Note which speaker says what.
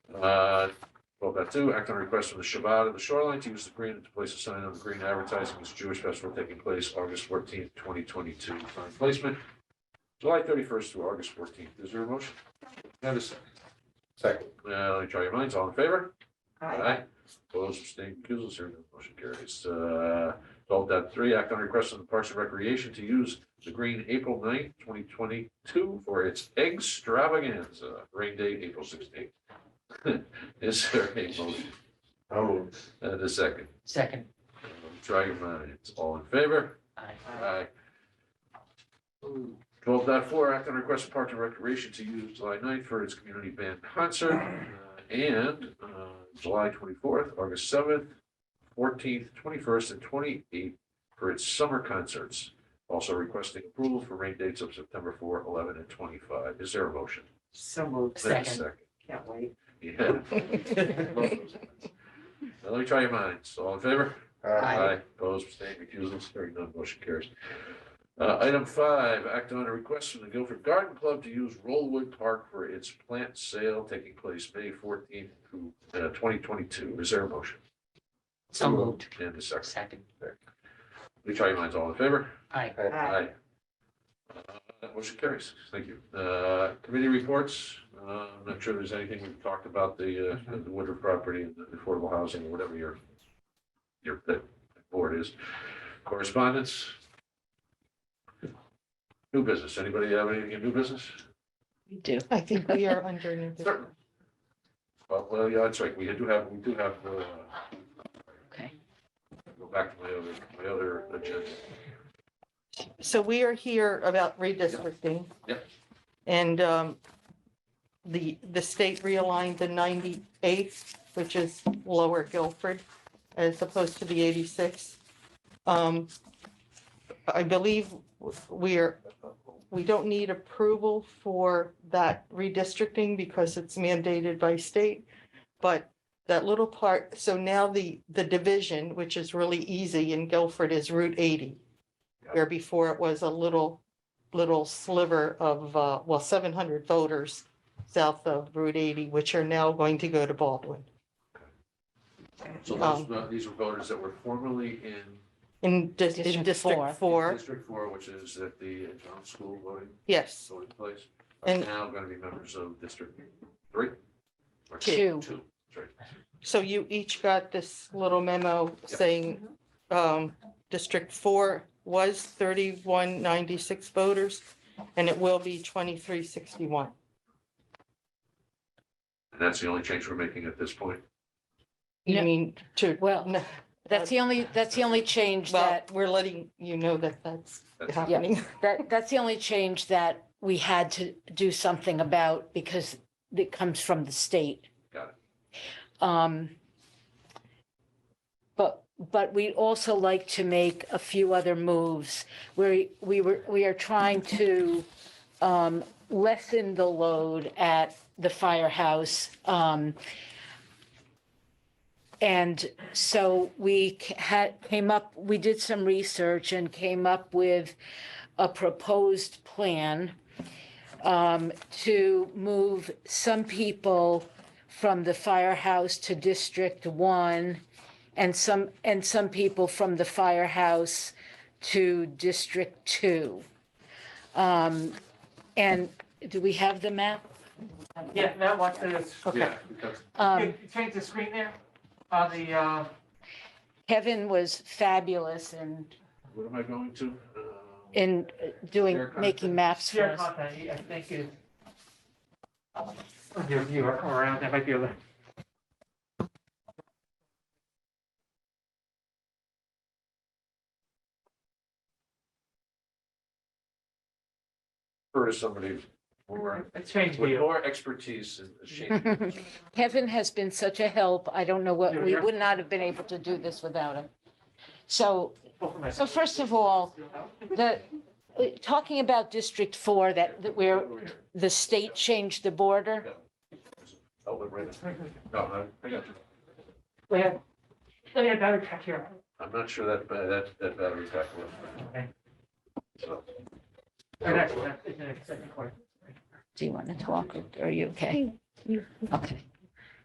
Speaker 1: Uh, two, act on a request from the Shabbat of the Shoreline to use the green to place a sign on the green advertising this Jewish festival taking place August fourteenth, twenty twenty-two. Time placement, July thirty-first through August fourteenth. Is there a motion? Have a second.
Speaker 2: Second.
Speaker 1: Uh, let me try your minds. All in favor?
Speaker 3: Aye.
Speaker 1: Aye. Opposed, abstained, recusals, hearing none, motion carries. Uh, twelve dot three, act on request of the Parks and Recreation to use the green April 9th, twenty twenty-two for its extravaganza, rain date, April sixteenth. Is there a motion?
Speaker 2: I'll move.
Speaker 1: And a second.
Speaker 3: Second.
Speaker 1: Try your minds. All in favor?
Speaker 3: Aye.
Speaker 1: Aye. Twelve dot four, act on request of Parks and Recreation to use July 9th for its community band concert. uh, And uh, July twenty-fourth, August seventh, fourteenth, twenty-first, and twenty-eighth for its summer concerts. Also requesting approval for rain dates of September 4, 11, and twenty-five. Is there a motion?
Speaker 3: So moved.
Speaker 1: Is there a
Speaker 3: Second. Can't wait.
Speaker 1: Yeah. Both those ones. Now, Let me try your minds. All in favor?
Speaker 3: Aye.
Speaker 1: Opposed, abstained, recusals, hearing none, motion carries. Uh, item five, act on a request from the Guilford Garden Club to use Rollwood Park for its plant sale taking place May fourteenth through, uh, twenty twenty-two. Is there a motion?
Speaker 3: So moved.
Speaker 1: And a second.
Speaker 3: Second.
Speaker 1: Please try your minds. All in favor?
Speaker 3: Aye.
Speaker 4: Uh,
Speaker 1: uh,
Speaker 2: Aye.
Speaker 1: Aye. Uh, Motion carries. Thank you. Uh, committee reports, uh, I'm not sure there's anything we've talked about the, uh, the Woodruff property and the affordable housing, whatever your, your, that board is. Correspondence? New business. Anybody have anything in new business?
Speaker 5: We do. I think we are under new business.
Speaker 1: Certainly. Well, well, yeah, that's right. We do have, we do have, uh,
Speaker 5: Okay.
Speaker 1: go back to my other, my other agenda.
Speaker 5: So we are here about redistricting.
Speaker 1: Yep.
Speaker 5: And um, the, the state realigned the 98th, which is Lower Guilford, as opposed to the 86th. Um, I believe we are, we don't need approval for that redistricting because it's mandated by state. But that little part, so now the, the division, which is really easy in Guilford, is Route 80 where before it was a little, little sliver of, uh, well, seven hundred voters south of Route eighty, which are now going to go to Baldwin.
Speaker 1: So those, uh, these were voters that were formerly in
Speaker 5: In dis- in
Speaker 4: District four.
Speaker 5: District Four,
Speaker 1: District four, which is at the uh, John School voting,
Speaker 5: yes,
Speaker 1: voting place, are
Speaker 5: And-
Speaker 1: now going to be members of District three. Or
Speaker 4: Two.
Speaker 1: Two, sorry.
Speaker 5: so you each got this little memo saying, um, District Four was thirty-one ninety-six voters, and it will be twenty-three sixty-one.
Speaker 1: And that's the only change we're making at this point.
Speaker 5: You
Speaker 4: No.
Speaker 5: mean to,
Speaker 4: Well,
Speaker 5: no,
Speaker 4: That's the only, that's the only change
Speaker 5: well,
Speaker 4: that,
Speaker 5: we're letting you know that that's
Speaker 1: That's-
Speaker 5: happening.
Speaker 4: that, that's the only change that we had to do something about because it comes from the state.
Speaker 1: Got
Speaker 4: it. Um, but, but we'd also like to make a few other moves where we were, we are trying to um, lessen the load at the firehouse. Um, And so we ca- had, came up, we did some research and came up with a proposed plan um, to move some people from the firehouse to District One and some, and some people from the firehouse to District Two. Um, And do we have the map?
Speaker 6: Yeah, that one is,
Speaker 5: Okay,
Speaker 1: Yeah, because-
Speaker 4: Um,
Speaker 6: you change the screen there, on the, uh,
Speaker 4: Kevin was fabulous in,
Speaker 1: What am I going to? Uh,
Speaker 4: in doing,
Speaker 1: Share
Speaker 4: making maps for
Speaker 6: share
Speaker 4: us.
Speaker 6: content, I think is. Your viewer around, that might be able to.
Speaker 1: Refer to somebody more,
Speaker 6: I changed
Speaker 1: with
Speaker 6: the,
Speaker 1: more expertise in the shape.
Speaker 4: Kevin has been such a help. I don't know what, we
Speaker 6: Yeah.
Speaker 4: would not have been able to do this without him. So,
Speaker 6: both of my-
Speaker 4: so first of all, the, uh, talking about District Four, that, that where the state changed the border.
Speaker 1: Oh, wait, wait. No, no, I got you.
Speaker 6: We have, we have battery pack here.
Speaker 1: I'm not sure that, ba- that, that battery's back. up.
Speaker 6: Okay.
Speaker 1: So-
Speaker 6: Right next to that, isn't it? Second corner.
Speaker 4: Do you want to talk or are you okay? Okay.